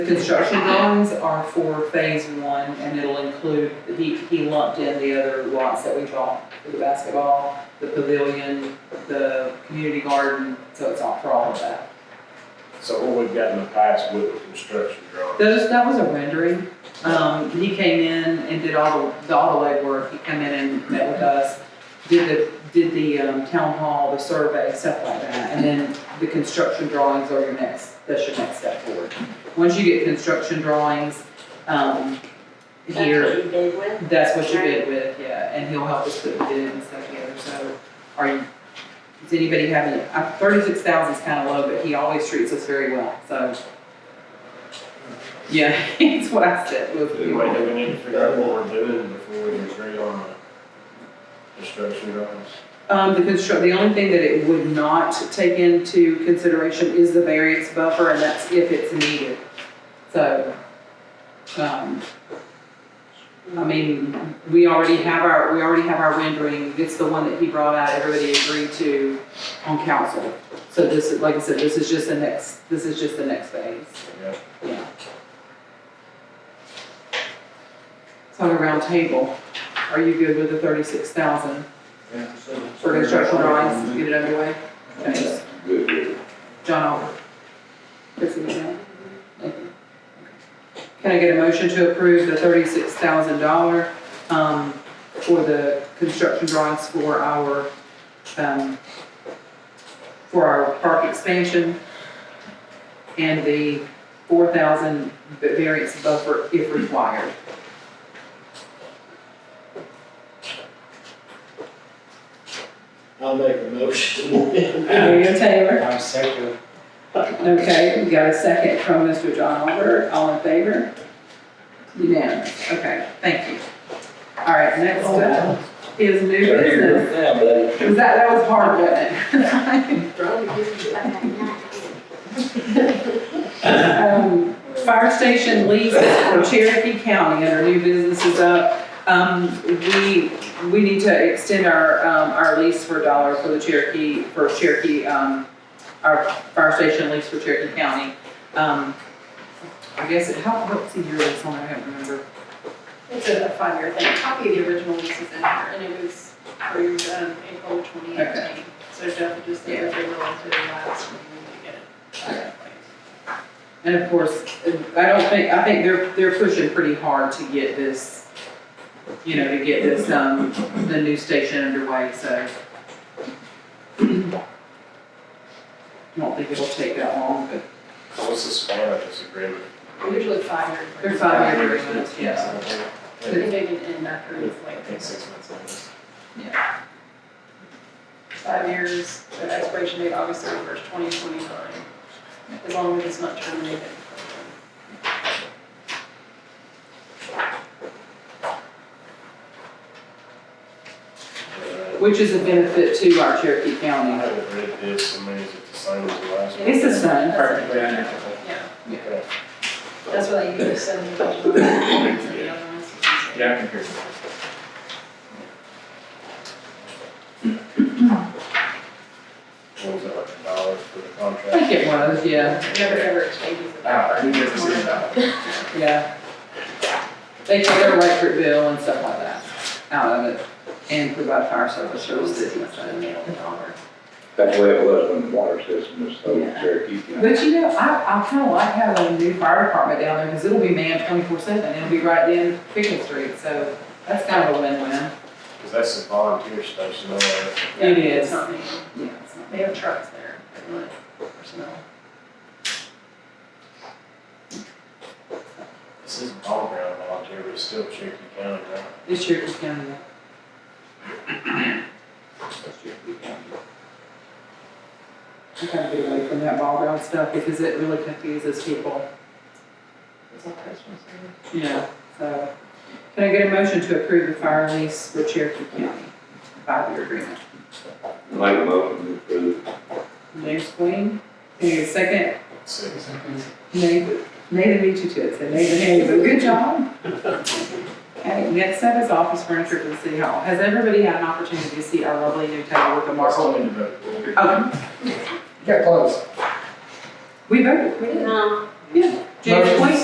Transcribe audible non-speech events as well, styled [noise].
The construction drawings are for phase one, and it'll include, he, he lumped in the other lots that we draw, for the basketball, the pavilion, the community garden, so it's all for all of that. So what we've got in the past with the construction drawing, Those, that was a rendering, um, he came in and did all the, all the legwork, he came in and met with us, did the, did the, um, town hall, the survey, stuff like that, and then the construction drawings are your next, that's your next step forward. Once you get construction drawings, um, here. That's what you did with? That's what you bid with, yeah, and he'll help us put the bid and stuff together, so are you, does anybody have any, uh, thirty-six thousand is kinda low, but he always treats us very well, so. Yeah, [laughs] it's what I said, was- anyway, do we need to figure out what we're doing before we agree on the construction drawings? Um, the construct, the only thing that it would not take into consideration is the variance buffer, and that's if it's needed. So, um, I mean, we already have our, we already have our rendering, it's the one that he brought out, everybody agreed to on council. So this is, like I said, this is just the next, this is just the next phase, Yeah. yeah. So on a round table, are you good with the thirty-six thousand? For construction drawings, get it underway. Thanks. Good, good. John Oliver. Chris Lee. Can I get a motion to approve the thirty-six thousand dollar, um, for the construction drawings for our, um, for our park expansion? And the four thousand variance buffer if required. I'll make a motion. Maria Taylor. I'm second. Okay, we got a second from Mr. John Albert, all in favor? Unanimous, okay, thank you. All right, next up is new business. Yeah, buddy. Was that, that was hard, wasn't it? [laughs] Okay, nice. Um, Fire station lease for Cherokee County under new business is up. Um, we, we need to extend our, um, our lease for dollar for the Cherokee, for Cherokee, um, our fire station lease for Cherokee County. Um, I guess, it- how, what's the year it's on, I can't remember. It's a five-year thing. Copy of the original lease is in there, and it was approved um, April twenty Okay. eighteen. So Jeff just said if they were willing to the last, we need to get it. And of course, I don't think, I think they're, they're pushing pretty hard to get this, you know, to get this, um, the new station underway, so. [clears throat] I don't think it'll take that long, but What's the span of this agreement? Usually five years. they're five year agreements, yeah. I think they can end after it's I like think six months. five years, the expiration date August thirty-first, twenty twenty-nine. As long as it's not terminated. I Which is a benefit to our Cherokee County. haven't read this, I mean, is it the same as the last one? It's the same. Perfect. Perfect. Yeah, Okay. that's why they usually send the original. lease to the other ones. Yeah, I can hear you. What was that, like a dollar for the I think contract? it was, yeah, Never ever changes the Ah, number. who gives us a dollar? yeah. They pay their electric bill and stuff like that out of it and provide fire service for the city. so. That's the way it was when the water system was so Yeah. Cherokee. you know. But you know, I, I kind of like having a new fire department down there, because it'll be manned twenty-four seven, it'll be right in Pickens Street, so that's kind of a win-win. Cause that's a volunteer station, though, uh, It is. It's not me. Yeah, it's not They have trucks there, but not personnel. this is all ground volunteer, but it's still Cherokee County, right? bad. This year it's kind of. I gotta get away from that ball ground stuff, because it really confuses people, It's all Christmas. right? you know, so. Can I get a motion to approve the fire lease for Cherokee County, five-year agreement? Make a motion to approve. James Queen, can I get a second? Six. Nathan, Nathan beat you to it, so Nathan Hayes, but good job. Okay, next up is office furniture for the city hall. Has everybody had an opportunity to see our lovely new table with the marble? Something about- Um, Get close. we voted, we did. No, Yeah. January Motion. twenty